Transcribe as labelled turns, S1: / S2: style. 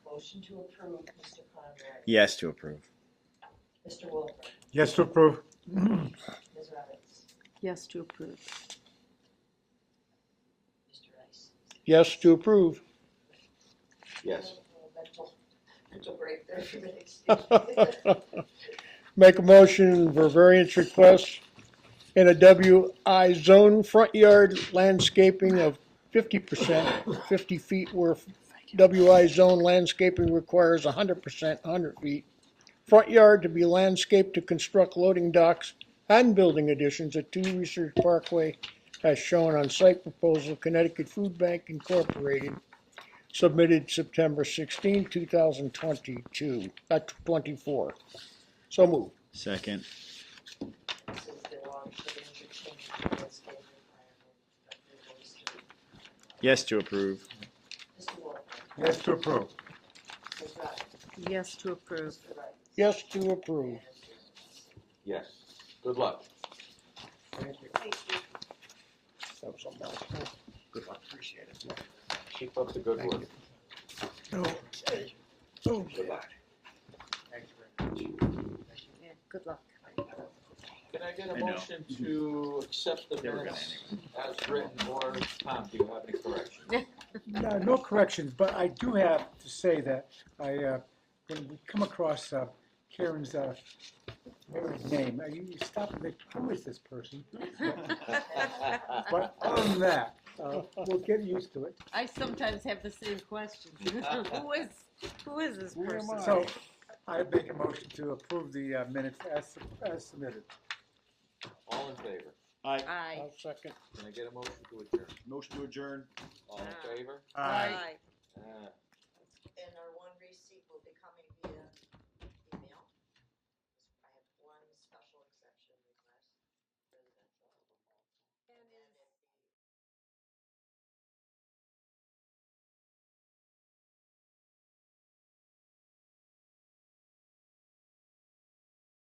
S1: Motion to approve, Mr. Conrad.
S2: Yes to approve.
S1: Mr. Wolfer,
S3: Yes to approve.
S1: Ms. Roberts,
S4: Yes to approve.
S1: Mr. Rice.
S5: Yes to approve.
S6: yes,
S1: Oh, Mental, mental break there for a minute, excuse me.
S5: Make a motion for variance request in a WI zone, front yard landscaping of fifty percent, fifty feet where WI zone landscaping requires hundred percent, hundred feet. Front yard to be landscaped to construct loading docks and building additions at Two Research Parkway as shown on site proposal Connecticut Food Bank Incorporated, submitted September 16, 2022, uh, 24. So moved.
S2: Second.
S1: This is the long signature change to the landscape requirement of the street.
S2: Yes to approve.
S1: Mr. Wolfer,
S3: Yes to approve.
S1: Ms. Roberts,
S4: Yes to approve.
S1: Mr. Rice.
S5: Yes to approve.
S6: yes. Good luck.
S1: Thank you.
S5: That was something else.
S6: Keep up the good work.
S5: Okay. Okay.
S6: Good luck.
S4: Yeah, Good luck.
S6: Can I get
S2: I
S6: a
S2: know.
S6: motion to accept the
S2: They were gonna
S6: minutes as written, or Tom, do you have any corrections?
S3: No, no corrections, but I do have to say that I, uh, when we come across uh, Karen's, uh, Karen's name, uh, you you stop and think, who is this person? But other than that, uh, we'll get used to it.
S4: I sometimes have the same question. Who is, who is this
S5: Who am
S4: person?
S5: I?
S3: So I make a motion to approve the uh, minutes as as submitted.
S6: All in favor?
S2: Aye.
S4: Aye.
S5: I'll second.
S6: Can I get a motion to adjourn?
S2: Motion to adjourn.
S6: All in favor?
S4: Aye.
S6: Ah.
S1: And our one receipt will be coming